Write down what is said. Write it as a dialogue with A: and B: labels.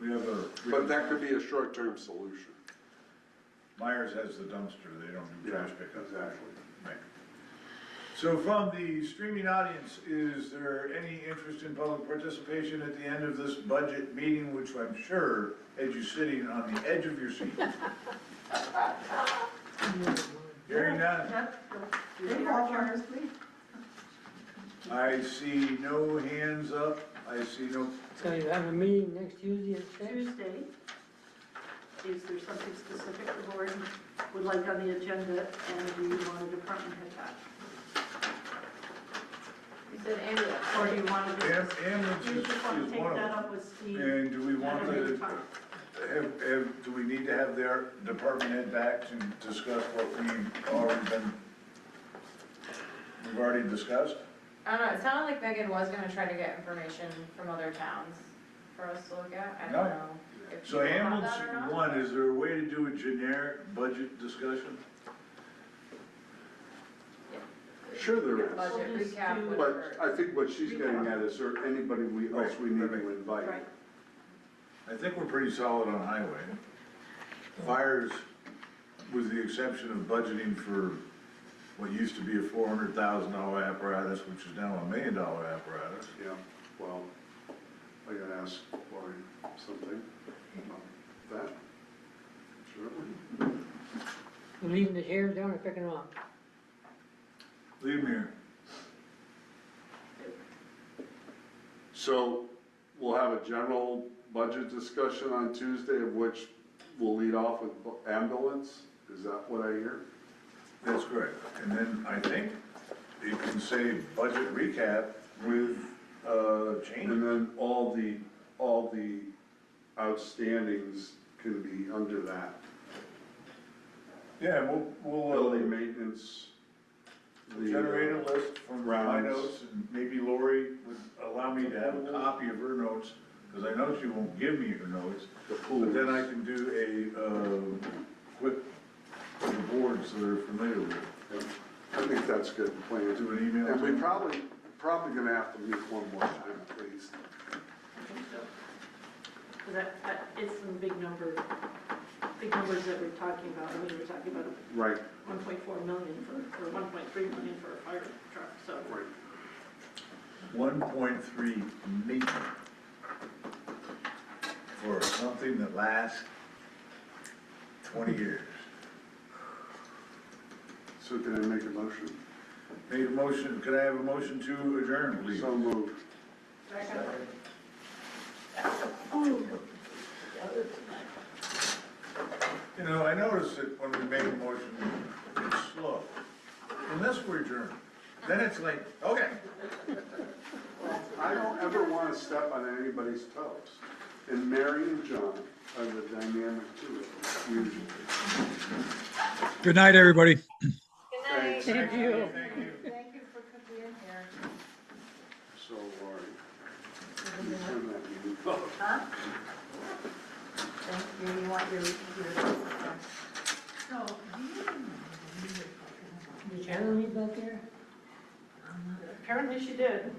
A: We have a.
B: But that could be a short-term solution.
A: Myers has the dumpster, they don't do trash pickup.
B: Exactly.
A: Right. So from the streaming audience, is there any interest in public participation at the end of this budget meeting, which I'm sure had you sitting on the edge of your seat? Hearing none, I see no hands up, I see no,
C: So you have a meeting next Tuesday at six?
D: Tuesday, is there something specific the board would like on the agenda and do you want a department head back?
E: You said ambulance.
D: Or do you want to
A: am-
D: just,
A: ambulance
D: do you
A: is
D: just want to
A: is
D: take
A: one of
D: that
A: them.
D: up with Steve?
A: And do we want
D: at another
A: to,
D: time?
A: have, have, do we need to have their department head back to discuss what we've already been, we've already discussed?
E: I don't know, it sounded like Megan was gonna try to get information from other towns for us to look at, I
A: No.
E: don't know. if
A: So
E: you want
A: ambulance
E: that or not.
A: one, is there a way to do a generic budget discussion?
B: Sure there is.
E: Budget
D: We'll just do-
E: recap,
B: But
E: whatever.
B: I think what she's getting at is, or anybody we, else we need to invite.
D: Right,
A: I think we're pretty solid on highway. Fires, with the exception of budgeting for what used to be a four hundred thousand dollar apparatus, which is now a million dollar apparatus.
F: Yeah, well, I gotta ask Lori something about that. Sure.
C: We're Leaving the chairs down and picking them up.
A: Leave me here.
B: So we'll have a general budget discussion on Tuesday, of which we'll lead off with bu- ambulance. Is that what I hear?
A: That's correct. And then I think you can say budget recap with, uh,
B: And
A: change.
B: then all the, all the outstandings can be under that.
A: Yeah, we'll, we'll uh,
B: Building maintenance. the, uh,
A: generate a list from my
B: Rounds.
A: notes, and maybe Lori would allow me to have a copy of her notes, because I know she won't give me her notes.
B: The pool.
A: But then I can do a, uh, quick, for the boards that are familiar with, it.
B: I think that's good plan.
A: do an email.
B: And
A: to
B: we
A: them.
B: probably, probably gonna have to meet one more time at least.
D: I think so. 'Cause that, that is some big number, big numbers that we're talking about, I mean, we're talking about
B: Right,
D: one point four million for, or one point three million for a fire truck, so.
B: right.
A: One point three million for something that lasts twenty years.
B: So can I make a motion?
A: Made a motion, could I have a motion to adjourn, please?
B: So moved.
A: You know, I noticed that when we make a motion, it's slow. Unless we're adjourned, then it's like, okay.
B: I don't ever want to step on anybody's toes. And Mary and John are the dynamic duo, usually.
G: Good night, everybody.
E: Good night.
C: Thank you.
A: Thank you.
E: Thank you for coming in here.
B: So Laurie, you turn that meeting off.
E: Thank you, you want your, your.
C: Is Anna leave back there?
D: Apparently she did.